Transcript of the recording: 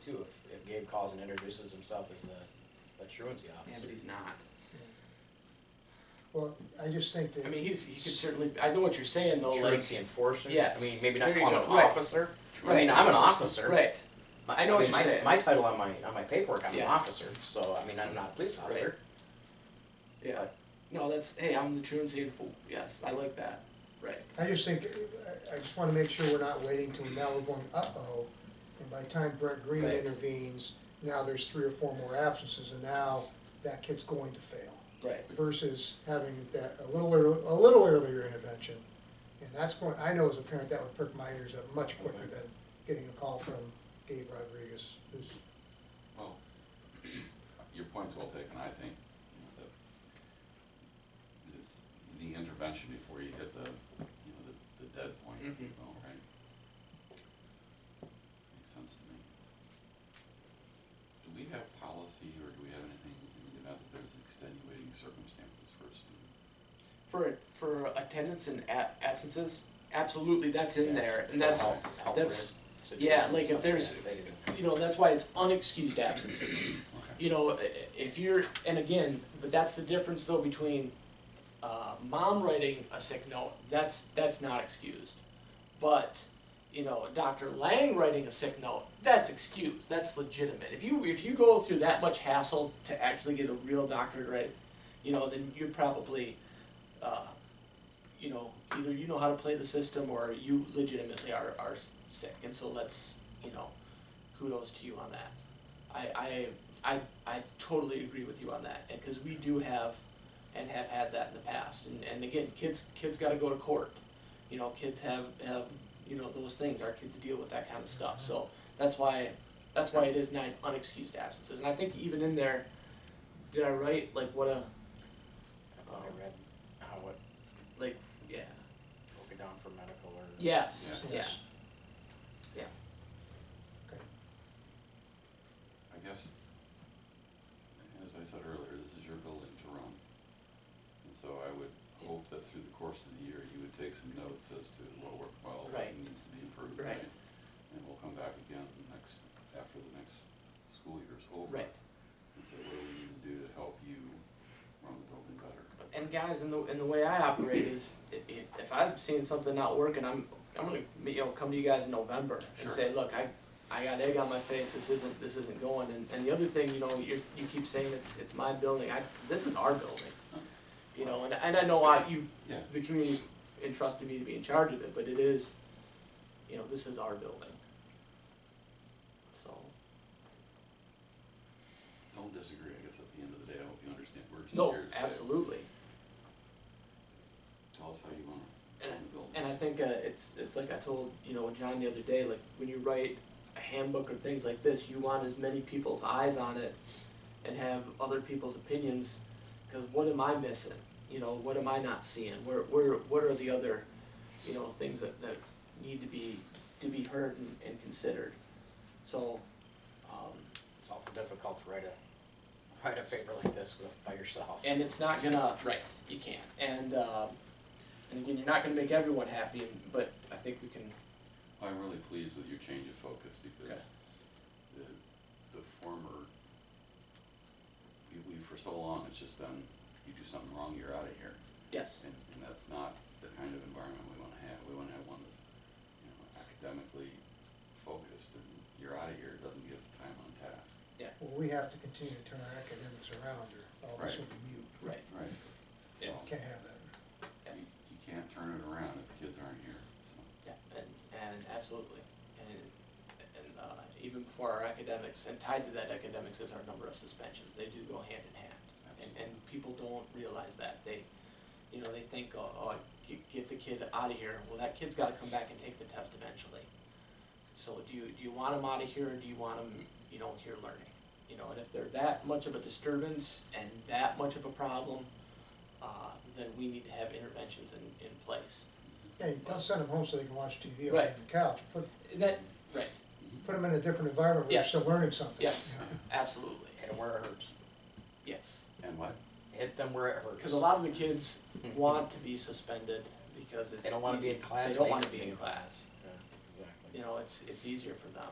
too, if, if Gabe calls and introduces himself as the, the truancy Yeah, officer. but he's not. Well, I just think that. I mean, he's, he could certainly, I know what you're saying though, like. Truancy enforcer, I Yes. mean, maybe not There you call him go. an Right. officer, I mean, I'm an officer. Right, My- I know what mean, you're my- saying. My title on my, on my paperwork, I'm an Yeah. officer, so, I mean, I'm not a police officer. yeah. No, that's, hey, I'm the truancy and fool, yes, I like that, right. I just think, I, I just wanna make sure we're not waiting till now we're going, uh-oh, and by the time Brent Green Right. intervenes, now there's three or four more absences, and now that kid's going to fail. Right. Versus having that, a little, ear- a little earlier intervention, and that's going, I know as a parent, that would perk my ears up much quicker than getting a call from Gabe Rodriguez, who's, Well, your point's well taken, I think, you know, that this, the intervention before you hit the, you know, the, the dead point, you Mhm. know, right? Makes sense to me. Do we have policy or do we have anything in the event that there's extenuating circumstances for a student? For, for attendance and ab- absences, absolutely, that's in Yes. there, and that's, Health- health that's- risk yeah, situations, like stuff if there's, that, that is- you know, that's why it's unexcused absences. Okay. you know, i- if you're, and again, but that's the difference though between uh, mom writing a sick note. That's that's not excused, but you know, Dr. Lang writing a sick note. That's excused. That's legitimate. If you if you go through that much hassle to actually get a real doctor to write, you know, then you're probably, uh, you know, either you know how to play the system or you legitimately are are sick. And so let's, you know, kudos to you on that. I I I, I totally agree with you on that, and because we do have, and have had that in the past, and, and again, kids kids got to go to court, you know, kids have have you know those things. Our kids deal with that kind of stuff, so that's why that's why it is nine unexcused absences, and I think even in there, did I write like what a I thought I read how it like yeah broke it down for medical or. yes yeah, Yes. I guess, as I said earlier, this is your building to run. And so I would hope that through the course of the year, you would take some notes as to what worked well, what Right. needs to be improved. Right. And we'll come back again next, after the next school year's over. Right. And say, what do we need to do to help you run the building better? and guys, in the in the way I operate is i- i- if I'm seeing something not working, I'm I'm gonna you know come to you guys in November and Sure. say, look, I I got egg on my face. This isn't this isn't going. And and the other thing, you know, you you keep saying it's it's my building. I this is our building. You know, and and I know I you Yeah. the community's entrusted me to be in charge of it, but it is, you know, this is our building. So Don't disagree, I guess at the end of the day, I hope you understand, we're just no, here to say, absolutely. tell us how you wanna And I- run the building. And I think uh, it's it's like I told you know John the other day, like when you write a handbook or things like this, you want as many people's eyes on it, and have other people's opinions, because what am I missing? You know, what am I not seeing? Where where what are the other, you know, things that, that need to be to be heard and, and considered? So, um, It's awful difficult to write a, write a paper like this with, by yourself. and it's not gonna right. You can't. And uh, and again, you're not gonna make everyone happy, and, but I think we can. I'm really pleased with your change of focus because Okay. the, the former, we, we, for so long, it's just been, you do something wrong, you're out of here. Yes. And, and that's not the kind of environment we wanna have. We wanna have one that's, you know, academically focused and you're out of here, it doesn't give time on task. well, we have to continue to turn our academics around, or all this Right. will be mute, Right. Right. Yes. can't have that. Yes. You, you can't turn it around if the kids aren't here, so. Yeah, and, and absolutely, and, and, uh, even before our academics, and tied to that academics is our number of suspensions, they do go hand in hand. And, and people don't realize that, they, you know, they think, oh, oh, get, get the kid out of here, well, that kid's gotta come back and take the test eventually. So do you, do you want them out of here, or do you want them, you know, here learning? You know, and if they're that much of a disturbance and that much of a problem, uh, then we need to have interventions in, in place. Yeah, you don't send them home so they can watch TV or lay Right. on the couch, put, And that, right, put them in a different environment where they're Yes. still learning something. Yes. absolutely, And where it hurts. yes. And what? Hit them where it hurts. Because a lot of the kids want to be suspended because it's. They don't wanna be easy- in class, They don't they wanna can be be. in class, Yeah, Exactly. you know, it's, it's easier for them.